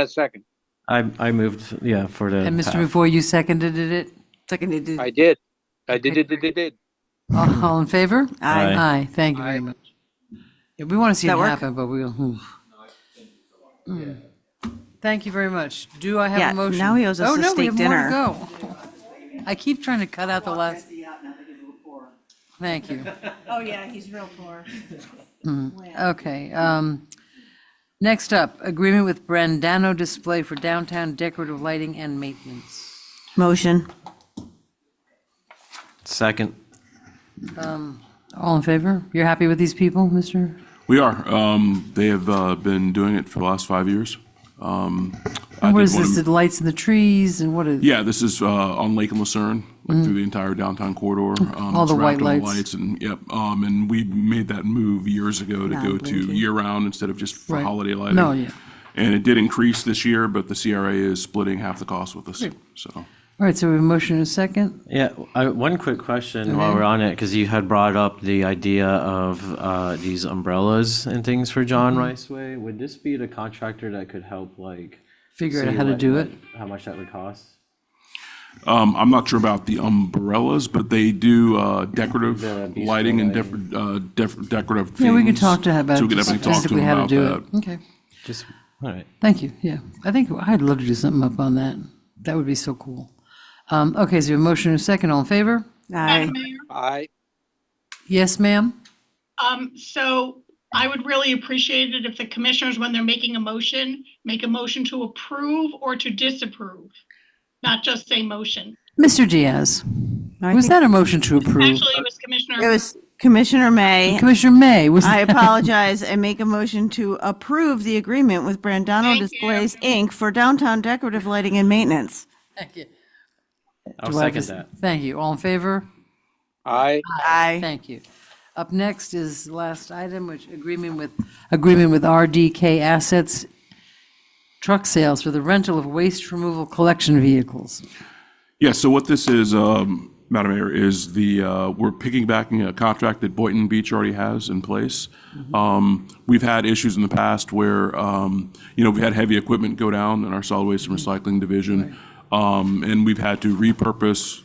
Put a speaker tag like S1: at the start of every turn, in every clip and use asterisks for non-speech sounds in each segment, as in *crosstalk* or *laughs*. S1: a second.
S2: I, I moved, yeah, for the.
S3: And Mr.
S2: path.
S3: Before you seconded it?
S4: Seconded it.
S1: I did. I did, did, did, did, did.
S3: All all in favor?
S2: Aye.
S3: Aye, thank you very much. Yeah, We want to see it
S4: That work?
S3: happen, but we'll. hmm. Mm. Thank you very much. Do I have
S4: Yeah,
S3: a motion?
S4: now he owes us
S3: Oh,
S4: a
S3: no, we have
S4: steak
S3: more to
S4: dinner.
S3: go. I keep trying to cut out the last. Thank you.
S5: Oh, yeah, he's real poor.
S3: Okay. um, Next up, agreement with Brandano Display for downtown decorative lighting and maintenance.
S4: Motion.
S2: Second.
S3: All in favor? You're happy with these people, Mr.?
S6: We are. Um, They have uh, been doing it for the last five years. Um, I
S3: What
S6: did
S3: is
S6: wanna-
S3: this, the lights in the trees and what is?
S6: Yeah, this is uh, on Lake and Lucerne, like through the entire downtown corridor. um,
S3: All the
S6: it's
S3: white
S6: wrapped in
S3: lights.
S6: And, yep, um, and we made that move years ago to go to
S4: Non-blinking.
S6: year-round instead of just for
S3: Right.
S6: holiday lighting.
S3: No, yeah.
S6: And it did increase this year, but the CRA is splitting half the cost with us, so.
S3: All right, so we have a motion and a second.
S2: Yeah, I, one quick question while we're on it, because you had brought up the idea of uh, these umbrellas and things for John
S3: Mm-hmm.
S2: Riceway. Would this be the contractor that could help, like?
S3: Figure out
S2: see
S3: how to
S2: what-
S3: do it.
S2: How much that would cost?
S6: Um, I'm not sure about the umbrellas, but they do uh, decorative
S2: The bistro
S6: lighting and def- uh, def- decorative things.
S3: Yeah, we could talk to him about
S6: So we
S3: it,
S6: could
S3: just
S6: definitely talk to
S3: basically
S6: him
S3: how to
S6: about
S3: do
S6: that.
S3: it. Okay,
S2: Just, all right.
S3: thank you, yeah. I think, I'd love to do something up on that. That would be so cool. Um, okay, so a motion and a second, all in favor?
S4: Aye.
S1: I,
S3: Yes, ma'am?
S5: Um, so I would really appreciate it if the commissioners, when they're making a motion, make a motion to approve or to disapprove, not just say motion.
S3: Mr. Diaz,
S4: I
S3: was
S4: think-
S3: that a motion to approve?
S5: Actually, it was Commissioner.
S4: It was Commissioner May.
S3: Commissioner May, was
S5: *laughs*
S4: I
S3: that?
S4: apologize and make a motion to approve the agreement with Brandano
S5: Thank you.
S4: Displays, Inc. for downtown decorative lighting and maintenance.
S3: Thank you.
S2: I'll
S3: Do I have
S2: second
S3: a-
S2: that.
S3: Thank you, all in favor?
S1: I,
S4: Aye.
S3: Thank you. Up next is the last item, which agreement with, agreement with RDK Assets Truck Sales for the rental of waste removal collection vehicles.
S6: Yeah, so what this is, um, Madam Mayor, is the, uh, we're picking back a contract that Boynton Beach already has in place. Um, We've had issues in the past where, um, you know, we had heavy equipment go down in our solid waste and recycling division, um, and we've had to repurpose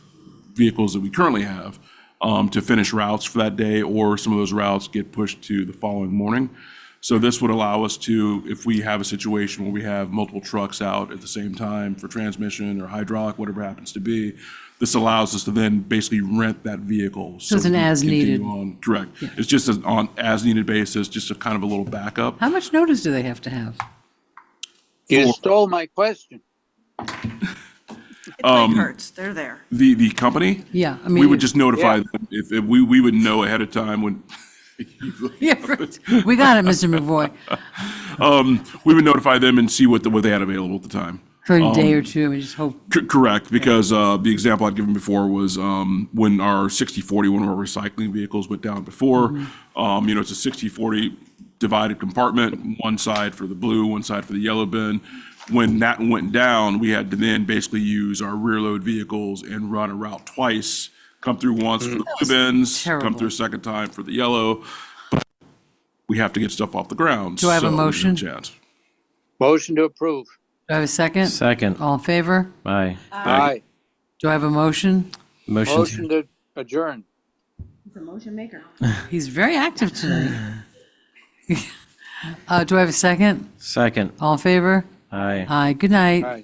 S6: vehicles that we currently have um, to finish routes for that day, or some of those routes get pushed to the following morning. So this would allow us to, if we have a situation where we have multiple trucks out at the same time for transmission or hydraulic, whatever it happens to be, this allows us to then basically rent that vehicle. So
S3: it's
S6: we
S3: an
S6: can
S3: as-needed-
S6: continue on- Correct. It's just an on as-needed basis, just a kind of a little backup.
S3: How much notice do they have to have?
S1: you stole my question.
S4: It's like Hertz, they're there.
S6: The, the company?
S3: Yeah, I
S6: We
S3: mean,
S6: would just notify
S1: yeah.
S6: them if, if we, we would know ahead of time when.
S3: Yeah, right. We got it, Mr. McVoy.
S6: um, we would notify them and see what, the- what they had available at the time.
S3: For a day or
S6: Um,
S3: two, I mean, just hope,
S6: C- Correct, because uh, the example I'd given before was um, when our 60/40, one of our recycling vehicles went down before,
S3: Mm-hmm.
S6: um, you know, it's a 60/40 divided compartment, one side for the blue, one side for the yellow bin. When that went down, we had to then basically use our rear load vehicles and run a route twice, come through once for the blue bins, come
S3: Mm. terrible.
S6: through a second time for the yellow. But We have to get stuff off the ground.
S3: Do I have a
S6: so there's
S3: motion?
S6: chance.
S1: Motion to approve.
S3: do I have a second?
S2: Second,
S3: All in favor?
S2: aye.
S1: I,
S3: Do I have a motion?
S2: Motion to
S1: motion to adjourn.
S3: He's very active tonight.
S6: *sighs*
S3: Uh, do I have a second?
S2: Second,
S3: All in favor?
S2: aye.
S3: Aye, good night.
S1: Aye.